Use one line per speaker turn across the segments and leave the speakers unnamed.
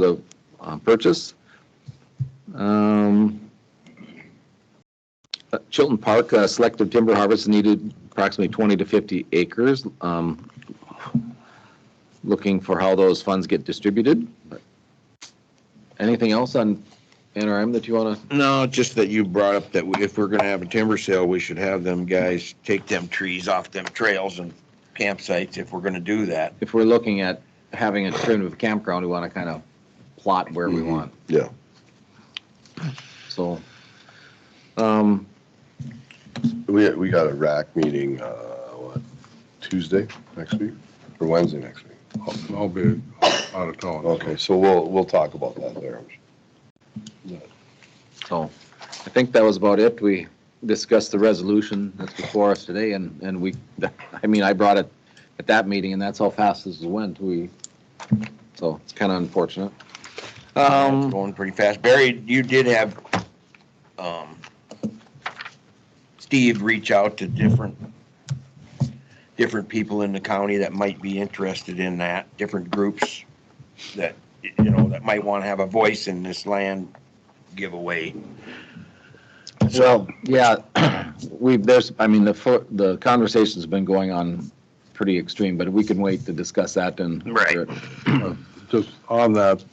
the uh, purchase. Um, uh, Chilton Park, uh, selective timber harvest needed approximately 20 to 50 acres. Um, Looking for how those funds get distributed. Anything else on NRM that you want to?
No, just that you brought up that if we're gonna have a timber sale, we should have them guys take them trees off them trails and campsites if we're gonna do that.
if we're looking at having a primitive campground, we want to kind of plot where we
Mhm.
want.
Yeah.
So, um,
We, we got a rack meeting, uh, what, Tuesday next week or Wednesday next week?
I'll- I'll be out of town.
Okay, so we'll, we'll talk about that there.
so I think that was about it. We discussed the resolution that's before us today and, and we, I mean, I brought it at that meeting and that's how fast this went. We, so it's kind of unfortunate.
It's
Um,
going pretty fast. Barry, you did have, um, Steve reach out to different, different people in the county that might be interested in that, different groups that, you know, that might want to have a voice in this land giveaway.
Well, yeah, we've, there's, I mean, the, fir- the conversation's been going on pretty extreme, but we can wait to discuss that and.
Right.
Just on that,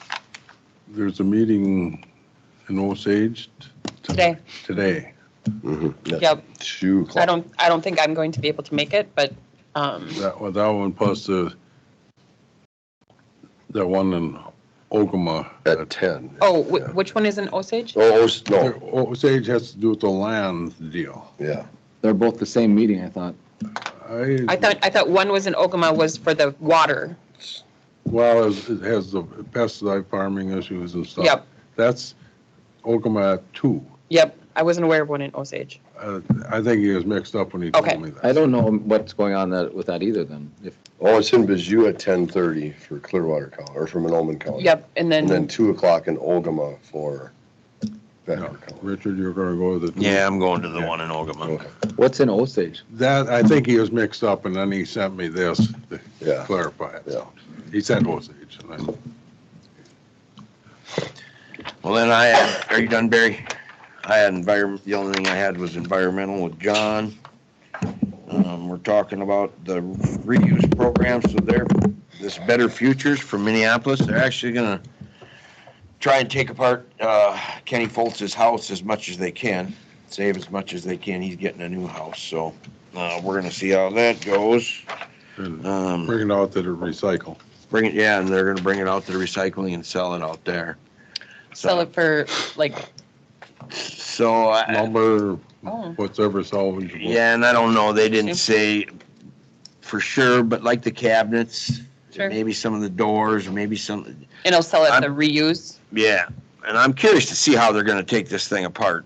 there's a meeting in Osage
today.
today.
Yep,
Two
I
o'clock.
don't, I don't think I'm going to be able to make it, but, um,
That, one- that one plus the, that one in Ogama.
At ten.
oh, wh- which one is in Osage?
Oh, oh, no,
Osage has to do with the land deal.
yeah.
They're both the same meeting, I thought.
I
I,
thought, I thought one was in Ogama was for the water.
well, it it has the pesticide farming issues and stuff.
Yep,
That's Ogama at two.
yep, I wasn't aware of one in Osage.
Uh, I think he was mixed up when he
Okay.
told me that.
I don't know what's going on that, with that either then. If,
Oh, it's in Bijou at ten thirty for Clearwater County, or for Monoman County.
Yep, and
Oh. And then
then,
two o'clock in Ogama for
No,
Becker County.
Richard, you're gonna go with it.
I'm going to the one in Ogama.
Okay,
what's in Osage?
That, I think he was mixed up and then he sent me this to
Yeah,
clarify it.
yeah.
He said Osage. and I-
Well, then I, had- are you done, Barry? I had environment, the only thing I had was environmental with John. Um, we're talking about the reuse program, so they're, this Better Futures from Minneapolis, they're actually gonna try and take apart, uh, Kenny Foltz's house as much as they can, save as much as they can. He's getting a new house, so, uh, we're gonna see how that goes.
and
Um,
Bring it out that it recycle.
bring it, yeah, and they're gonna bring it out to the recycling and sell it out there.
sell it for, like,
So I.
Lumber,
Oh.
whatever salvageable.
Uh, Yeah, and I don't know, they didn't say
Okay.
for sure, but like the cabinets,
Sure.
maybe some of the doors, maybe some,
and I'll sell it
I'm-
the reuse.
yeah. And I'm curious to see how they're gonna take this thing apart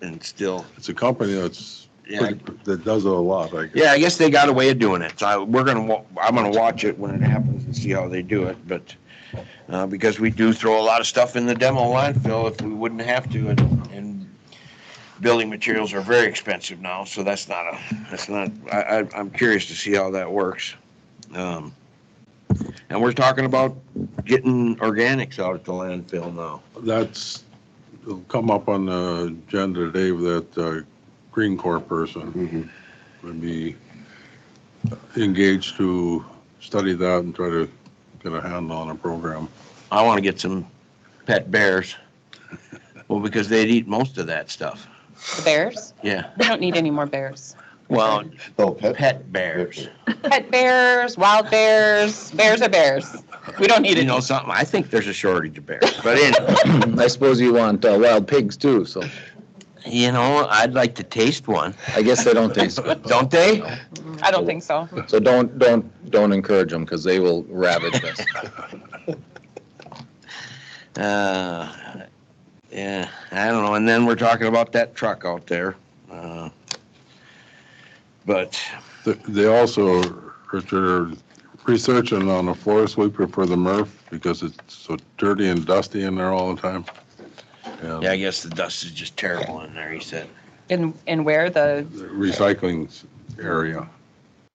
and still,
It's a company that's,
yeah, I-
pretty- that does it a lot, I guess.
yeah, I guess they got a way of doing it. So I- we're gonna, wa- I'm gonna watch it when it happens and see how they do it, but, uh, because we do throw a lot of stuff in the demo landfill if we wouldn't have to and, and building materials are very expensive now, so that's not a, that's not, I, I, I'm curious to see how that works. Um, and we're talking about getting organics out at the landfill now.
That's, it'll come up on the agenda today with that uh, Green Corps person
Mhm.
would be engaged to study that and try to get a handle on a program.
I wanna get some pet bears. Well, because they'd eat most of that stuff.
The Bears?
Yeah.
We don't need any more bears.
Well,
Oh, pet,
pet bears.
Pet bears, wild bears, bears are bears. We don't need
You
it.
know something? I think there's a shortage of bears. But anyway,
I suppose you want uh, wild pigs too, so
you know, I'd like to taste one.
I guess they don't taste good.
Don't they?
I don't think so.
So don't, don't, don't encourage them because they will ravage us.
Uh, yeah, I don't know. And then we're talking about that truck out there. Uh, but
Th- They also, Richard, are researching on a floor sweeper for the MRF because it's so dirty and dusty in there all the time. And
yeah, I guess the dust is just terrible in there, he said.
And, and where the,
the Recycling area.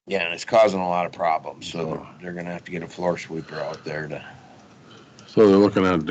Yeah, and it's causing a lot of problems. So they're going to have to get a floor sweeper out there to.
So they're looking at